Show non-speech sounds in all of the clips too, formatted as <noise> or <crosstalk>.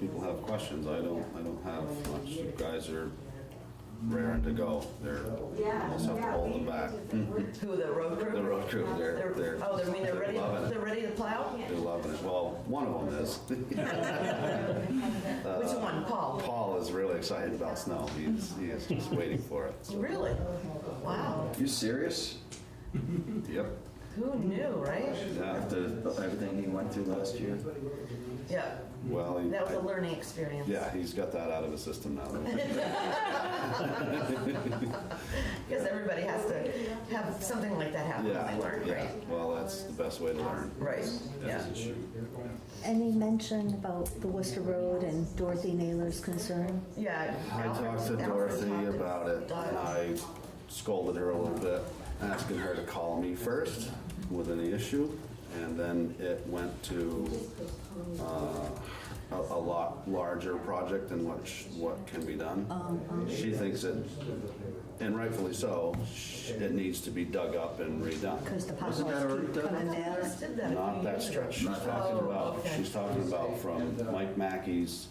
people have questions, I don't, I don't have much. You guys are raring to go. They're, Yeah, also yeah, hold we- them back. Who, the road crew? The road crew, they're, they're. Oh, they mean they're ready, loving it. they're ready to plow? They're loving it. Well, one of them is. <laughs> uh, Which one, Paul? Paul is really excited about snow. He's, he is just waiting for it. Really? Wow, You serious? Yep. who knew, right? Yeah. After everything he went through last year, Yeah, Well, he- that was a learning experience. yeah, he's got that out of his system <laughs> now. Because everybody has to have something like that happen when Yeah, they learn, yeah. right? Well, that's the best way to learn. Right, yeah. Any mention about the Worcester Road and Dorothy Naylor's concern? Yeah. I Alfred- talked to Alfred Dorothy talked to about it, and Doug. I scolded her a little bit, asking her to call me first with any issue, and then it went to uh, a a lot larger project than what, sh- what can be done. She thinks it, and rightfully so, sh- it needs to be dug up and redone. Because the Wasn't that potholes keep already done? coming I down. just did that a Not few that years ago. stretch she's Not that talking Oh, about, okay. she's talking about from Mike Mackey's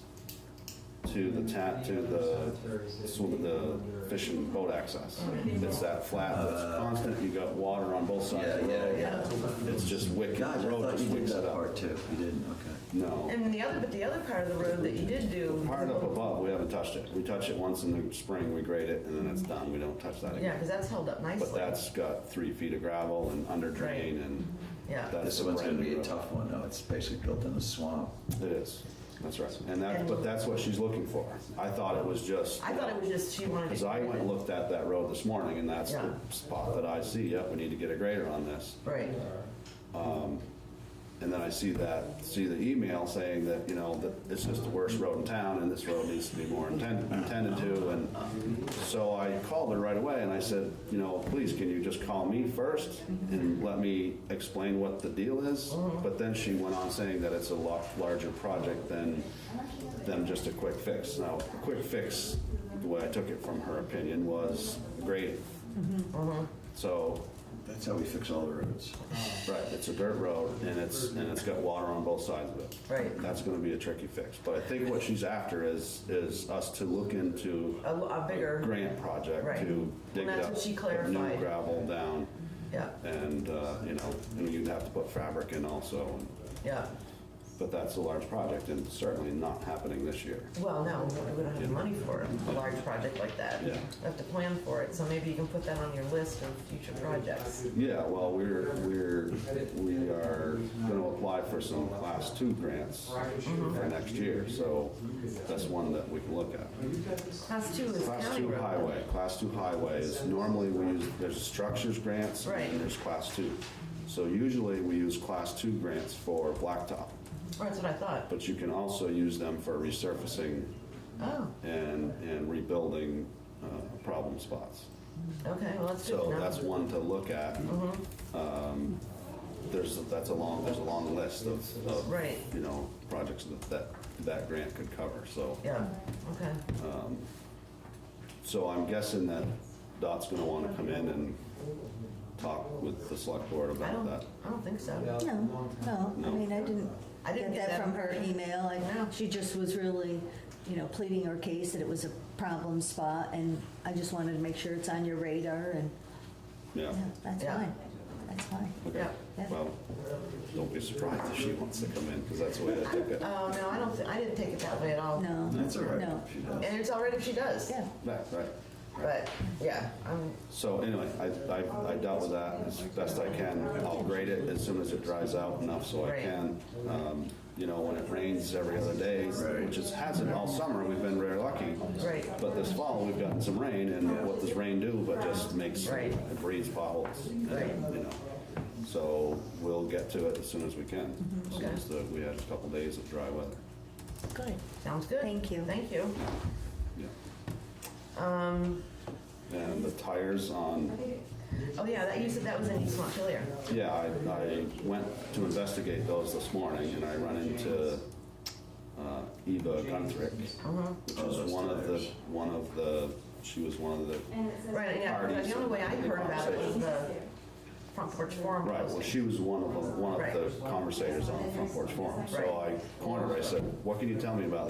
to the ta, to the swim, the fishing boat access. It's that flat that's constant, you got water on both sides of the Uh, Yeah, road. yeah, It's just wicked, gosh, the I road thought just you did wicks it that up. part too. You didn't, okay. No, And the other, but the other part of the road that you did do, part up above, we haven't touched it. We touch it once in the spring, we grade it, and then it's done, we don't touch that yeah, again. because that's held up nicely. But that's got three feet of gravel and under drain and Yeah. that's This a brand one's new gonna be a road. tough one, though. It's basically built in a swamp. It is, that's right. And that, but that's what she's looking for. I thought it was just. I thought it was just she wanted to. Because I went and looked at that road this morning, and that's the Yeah. spot that I see, yep, we need to get a grader on this. Right, And then I see that, see the email saying that, you know, that it's just the worst road in town, and this road needs to be more intended, intended to, and so I called her right away, and I said, you know, please, can you just call me first, and let me explain what the deal is? But then she went on saying that it's a lot larger project than, than just a quick fix. Now, a quick fix, the way I took it from her opinion, was grading. Uh-huh. So, That's how we fix all the roads. Right, it's a dirt road and it's, and it's got water on both sides of it. Right. That's gonna be a tricky fix, but I think what she's after is, is us to look into a, lo- a bigger, grant project Right. to dig it Well, up. that's what she put New clarified. gravel down yeah, and, uh, you know, and you'd have to put fabric in also, yeah. but that's a large project and certainly not happening this year. Well, no, we don't have the money for a large project like that. Yeah. We have to plan for it, so maybe you can put that on your list of future projects. Yeah, well, we're, we're, we are gonna apply for some class two grants for next year, so that's one that we can look at. Class two is Class county two road. highway, class two highways, normally we use, there's structures grants Right. and there's class two. So usually we use class two grants for blacktop, Or Oh, That's what I thought. but you can also use them for resurfacing Oh, and, and rebuilding, uh, problem spots. okay, well, that's good So to know. Mm-hmm. that's one to look at. Um, There's, that's a long, there's a long list of, of, Right. you know, projects that, that, that grant could cover, so. Yeah, okay, So I'm guessing that Dot's gonna wanna come in and talk with the select board I about don't, that. I don't think so. No, no, I mean, I didn't I didn't get get that that. from her email. I- No. She just was really, you know, pleading her case that it was a problem spot, and I just wanted to make sure it's on your radar, and Yeah, yeah, that's Yeah. fine. That's fine. okay. Yeah. Yeah. Well, don't be surprised if she wants to come in, because that's the way I took it. Oh, no, I don't, thi- I didn't take it that way at all. No. That's all right. No. She does. And it's all right if she does. Yeah, Right, right. But, yeah, I'm, So anyway, I, I, I dealt with that as best I can. I'll grade it as soon as it dries out enough so I Right. can. Um, You know, when it rains every other day, which it hasn't all summer, we've been very lucky. Right. But this fall, we've gotten some rain, and what does rain do but just makes, Right. it breeds potholes. and, Right. You know, so we'll get to it as soon as we can, Mm-hmm. as soon as the- we had a couple days of dry weather. good. sounds good. Thank you. Thank you. Yeah. Um, And the tires on oh, yeah, that, you said that was in East Montpelier. Yeah, I, I went to investigate those this morning and I run into uh, Eva Gunthrick, Uh-huh. which is one of the, one of the, she was one of the, Right, yeah, but the only way I heard about it was the front porch forum right, well, posting. she was one of the, one of the conversators on the Front Porch Forum. So I cornered her, I said, what can you tell me about